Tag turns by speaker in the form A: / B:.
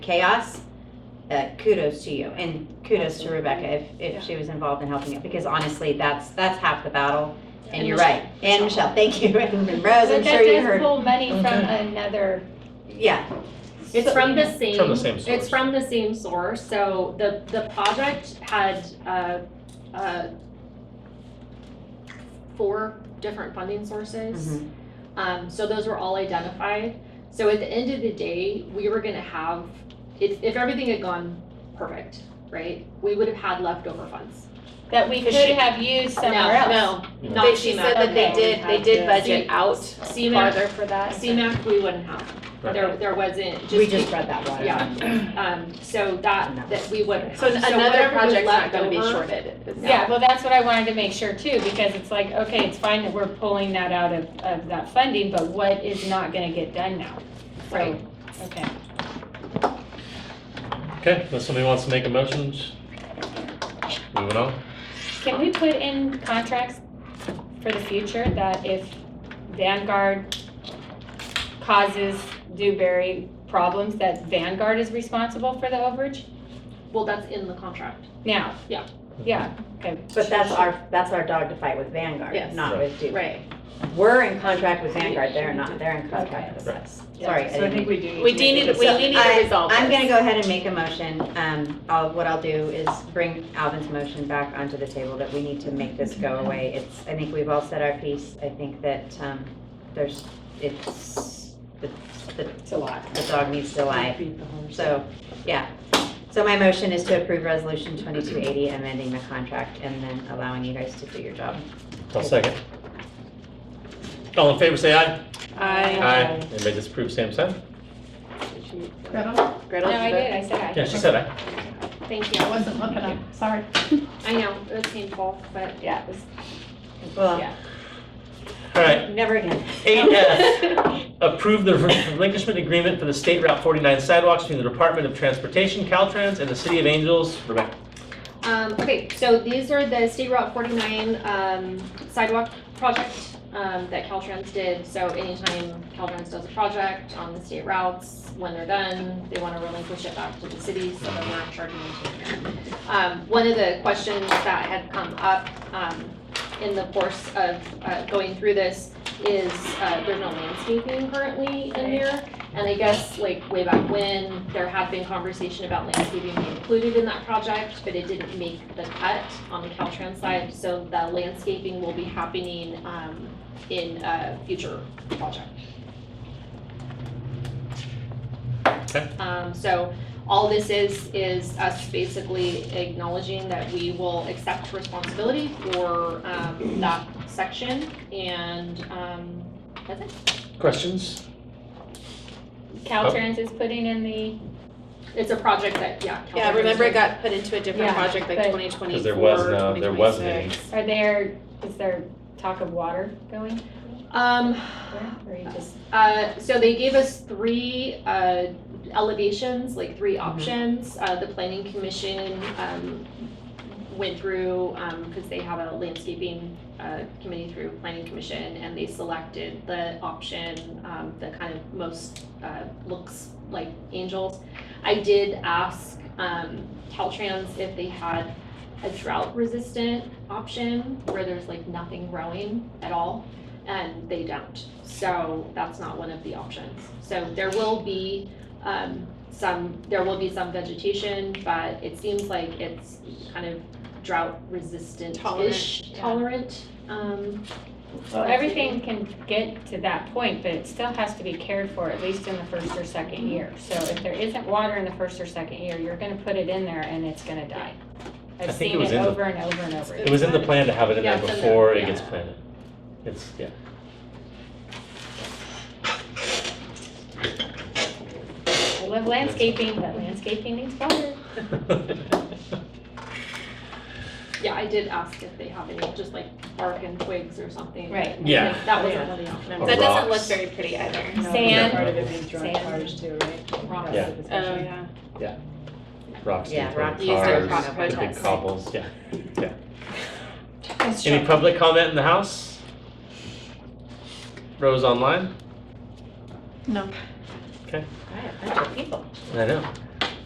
A: chaos, uh, kudos to you and kudos to Rebecca if, if she was involved in helping it because honestly, that's that's half the battle. And you're right. And Michelle, thank you. And Rose, I'm
B: But
A: sure
B: that
A: you
B: does
A: heard.
B: pull money from
A: Okay.
B: another.
A: Yeah,
C: It's from the same.
D: From the same
C: It's
D: source.
C: from the same source, so the, the project had, uh, uh, four different funding sources.
A: Mm-hmm.
D: Mm-hmm.
C: Um, so those were all identified. So at the end of the day, we were gonna have, if, if everything had gone perfect, right? We would have had leftover funds.
B: That we could
E: Because she-
B: have used somewhere else.
C: No, no,
D: No.
C: not
E: But she said
C: CMAC.
E: that they
B: Okay.
E: did, they did
B: Yeah.
E: budget
C: See-
E: out
C: CMAC,
E: farther for that.
C: CMAC, we wouldn't have.
D: Right.
C: There, there wasn't, just.
A: we just read that one.
C: Yeah, um, so that, that we would.
E: So another
C: whatever we
E: project's not
C: left
E: gonna be
C: over-
E: shorted. is-
B: Yeah, well, that's what I wanted to make sure too, because it's like, okay, it's fine that we're pulling that out of, of that funding, but what is not gonna get done now? So,
C: Right.
B: Okay.
D: Okay, unless somebody wants to make a motion, sh- moving on.
B: Can we put in contracts for the future that if Vanguard causes Dewberry problems, that Vanguard is responsible for the overage?
C: Well, that's in the contract.
B: Now?
C: Yeah.
B: Yeah, okay.
A: But that's our that's our dog to fight with Vanguard,
C: Yes.
A: not
D: Right.
A: with Duke.
C: Right.
A: We're in contract with Vanguard. They're not. They're in contract with
D: Right.
A: us. Sorry. I
E: So I
A: didn't-
E: think we do. We do need, we
A: So
E: do need
A: I-
E: to resolve
A: I'm gonna
E: this.
A: go ahead and make a motion. Um, I'll, what I'll do is bring Alvin's motion back onto the table that we need to make this go away. It's, I think we've all said our piece. I think that, um, there's, it's, the, the,
B: It's a lot.
A: the dog needs to lie. So, yeah. So my motion is to approve resolution twenty-two eighty, amending the contract and then allowing you guys to do your job.
D: I'll second. All in favor, say aye.
E: I,
D: Aye. Anybody disapprove, same sign?
B: No,
E: Gretel,
B: I
E: did
B: did, I said
D: Yeah,
B: I.
D: she said aye.
C: Thank
F: I
C: you.
F: wasn't looking up, sorry.
C: I know, it was painful, but.
B: Yeah, it was
A: Well,
B: Yeah.
D: All right,
A: never again.
D: eight F, approve the relinquishment agreement for the State Route 49 sidewalks between the Department of Transportation, Caltrans, and the City of Angels. Rebecca,
C: Um, okay, so these are the State Route forty-nine, um, sidewalk project, um, that Caltrans did. So anytime Caltrans does a project on the state routes, when they're done, they wanna relinquish it back to the city, so that we're not charging them. Um, one of the questions that had come up, um, in the course of, uh, going through this is, uh, there's no landscaping currently in there. And I guess like way back when, there had been conversation about landscaping being included in that project, but it didn't make the cut on the Caltrans side. So the landscaping will be happening um, in a future project.
D: Okay.
C: Um, So all this is, is us basically acknowledging that we will accept responsibility for um, that section. And um, that's it.
D: questions? Oh.
B: Caltrans is putting in the,
C: It's a project that, yeah.
E: Yeah,
C: Caltrans
E: remember it
C: did.
E: got put into a different
B: Yeah,
E: project like
B: but-
E: twenty twenty-four,
D: 'Cause there was no- there wasn't any.
B: are there, is there talk of water going?
C: Um,
B: there, Or you just,
C: uh, so they gave us three, uh, elevations, like three options. Uh, the planning commission, um, went through, um, cause they have a landscaping, uh, committee through planning commission and they selected the option, um, that kind of most, uh, looks like angels. I did ask, um, Caltrans if they had a drought resistant option where there's like nothing growing at all and they don't. So that's not one of the options. So there will be um, some, there will be some vegetation, but it seems like it's kind of drought resistant-ish,
E: Tolerant, yeah.
C: tolerant. um,
B: well, everything can get to that point, but it still has to be cared for at least in the first or
F: Mm-hmm.
B: second year. So if there isn't water in the first or second year, you're gonna put it in there and it's gonna die.
D: I
B: I've
D: think it
B: seen
D: was
B: it
D: in the-
B: over and over and over.
D: It was in the plan to have it in there
C: Yeah, it's in
D: before
C: there,
D: it
C: yeah.
D: gets planted. It's, yeah.
B: I love landscaping, but landscaping needs water.
C: Yeah, I did ask if they have any, just like bark and twigs or something. but
B: Right.
D: Yeah.
C: That was another option.
D: Or
E: That doesn't look
D: rocks.
E: very pretty either.
B: Sand.
F: Part of it being drug
B: Sand.
F: cars too, right?
C: Rocks.
D: Yeah.
E: Oh, yeah.
D: Rocks.
A: Yeah,
D: and throwing
A: rocks.
E: Use their
D: cars,
E: proper
D: the Big
E: test.
D: cobbles, yeah, yeah. Any public comment in the house? Rose online?
F: No.
A: All right, a bunch of people.
D: I know.